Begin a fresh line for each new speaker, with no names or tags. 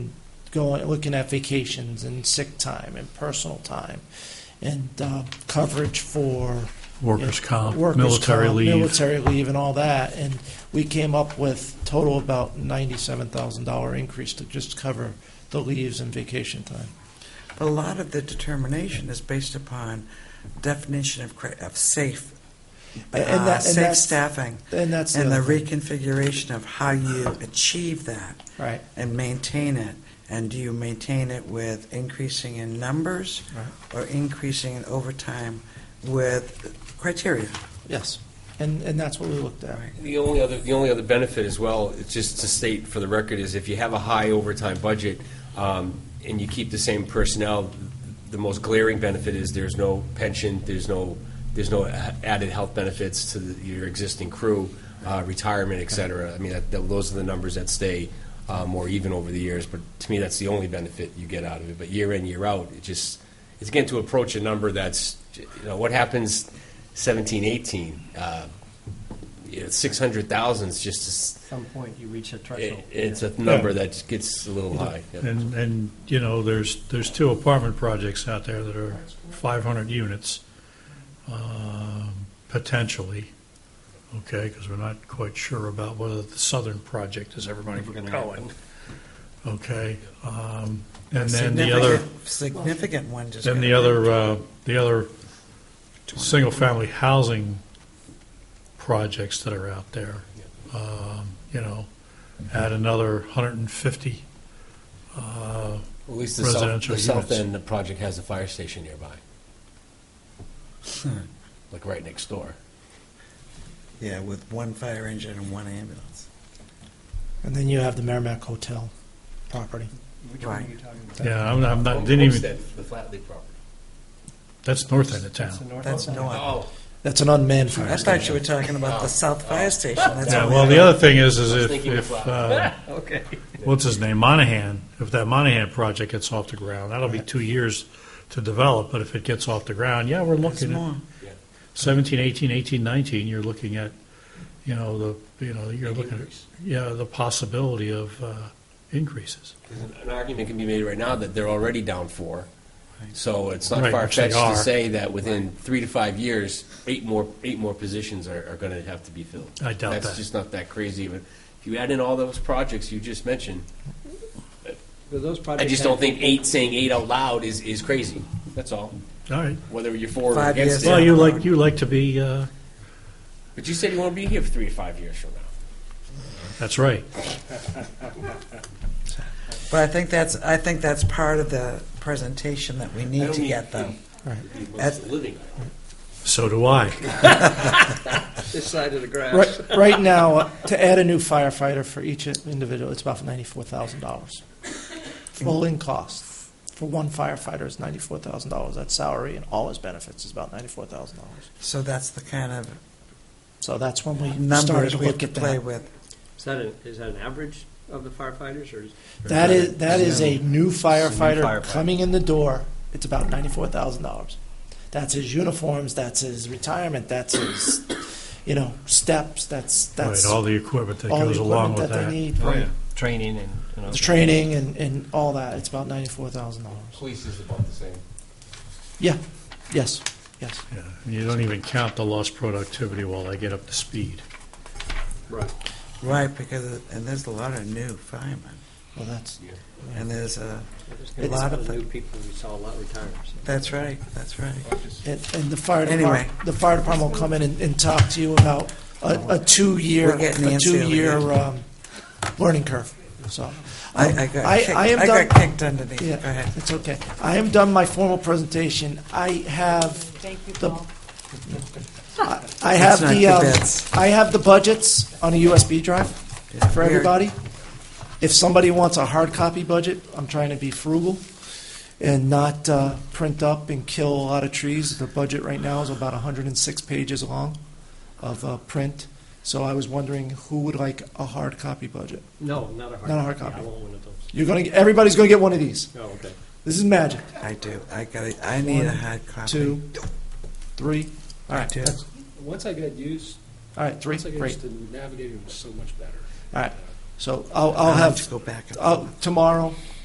going, looking at vacations and sick time and personal time and uh, coverage for
Workers' comp,
workers'
military
comp,
leave.
military leave, and all that. And we came up with total about ninety-seven thousand dollar increase to just cover the leaves and vacation time.
But a lot of the determination is based upon definition of, cra- of safe,
A- and
uh,
that- and
safe
that's-
staffing,
And that's
and the
other thing.
reconfiguration of how you achieve that
right.
and maintain it. And do you maintain it with increasing in numbers or increasing in overtime with criteria?
Yes, and and that's what we looked at.
Right.
The only other, the only other benefit as well, it's just to state for the record, is if you have a high overtime budget um, and you keep the same personnel, the most glaring benefit is there's no pension, there's no, there's no a- added health benefits to the- your existing crew, uh, retirement, et cetera. I mean, that- that- those are the numbers that stay uh, more even over the years, but to me, that's the only benefit you get out of it. But year in, year out, it just, it's getting to approach a number that's, you know, what happens 17, 18? Uh, six hundred thousand is just, a s-
At some point, you reach a threshold.
it- it's a number that gets a little high. yeah.
And, and, you know, there's, there's two apartment projects out there that are 500 units, um, potentially, okay, because we're not quite sure about whether the southern project is ever going
If we're
to
gonna
be
get
going. Okay, um, and then the other,
Significant- Significant one just.
then
got
the other, uh, the other single-family housing projects that are out there, um, you know, add another 150 uh,
At least the south,
Residential
the south
units.
end, the project has a fire station nearby.
Hmm.
Like right next door.
Yeah, with one fire engine and one ambulance.
And then you have the Merrimack Hotel property.
Which one are
Right.
you talking about?
Yeah, I'm not, I'm not, Uh, didn't even,
Homestead, The Flatley property.
that's north end of
That's the
town.
north
That's
one?
no one.
Oh,
That's an unmanned
I
fire
thought you
station.
were talking about the South Fire Station. That's
Yeah,
only
well, the
about-
other thing is, is
I was
if,
thinking of
if, uh,
Flat.
Okay.
what's his name, Monahan, if that Monahan project gets off the ground, that'll be two years to develop, but if it gets off the ground, yeah, we're
It's
looking at
more.
17, 18, 18, 19, you're looking at, you know, the, you know, you're
Big
looking at,
increase.
yeah, the possibility of uh, increases.
An argument can be made right now that they're already down four. So it's not
Right, which they
far-fetched to
are.
say that within three to five years, eight more, eight more positions are, are gonna have to be filled.
I doubt
That's
that.
just not that crazy. But if you add in all those projects you just mentioned, I just don't think eight, saying eight out loud is, is crazy. That's all.
All right,
Whether you're for or
Five
against
years.
well,
it.
you like, you like to be, uh,
But you said you want to be here for three to five years from now.
that's right.
But I think that's, I think that's part of the presentation that we
I
need
don't
to
mean-
get them.
Most of the living.
So do I.
This side of the grass.
Right, right now, uh, to add a new firefighter for each individual, it's about ninety-four thousand dollars. Full in cost for one firefighter is ninety-four thousand dollars. That's salary and all his benefits is about ninety-four thousand dollars.
So that's the kind of
So that's when we started
numbers
to
we have
look
to
at
play
that.
with.
Is that an, is that an average of the firefighters, or is?
That is, that is a new firefighter
firefighter.
coming in the door. It's about ninety-four thousand dollars. That's his uniforms, that's his retirement, that's his, you know, steps, that's,
Right,
that's
all
all
the equipment that
the
goes along
equipment
with
that they need.
that.
right.
Training and, you know.
The training and, and all that, it's about ninety-four thousand dollars.
Police is about the same.
Yeah, yes, yes.
Yeah, and You don't even count the lost productivity while I get up to speed.
Right.
Right, because, and there's a lot of new firemen,
Well, that's,
and there's uh, a,
There's a
It's-
lot of new people, we saw a lot retire. so.
that's right, that's right.
and, and the fire
Anyway.
department, the fire department will come in and, and talk to you about a, a two-year,
We're getting
a
antsy over
two-year,
here.
um, learning curve, so. um,
I, I
I-
got kicked,
I am
I
done-
got kicked underneath, go
Yeah,
ahead.
It's okay. I am done my formal presentation. I have,
Thank you,
The-
Paul.
I have
Let's not
the, um,
kibitz.
I have the budgets on a USB drive for
We're-
everybody. If somebody wants a hard copy budget, I'm trying to be frugal and not uh, print up and kill a lot of trees. The budget right now is about 106 pages long of uh, print. So I was wondering who would like a hard copy budget.
No, not a hard.
Not a hard
I
copy.
want one of those.
You're going to everybody's going to get one of these.
Oh, okay.
This is magic.
I do, I got, it. I need a
One,
hard copy.
Two, three. All right.
Two.
that's-
Once I got used,
All right. Three.
once I got
Great.
used to navigating, it was so much better.
All right. So I'll, I'll
I'll have to
have,
go back. and
I'll, tomorrow,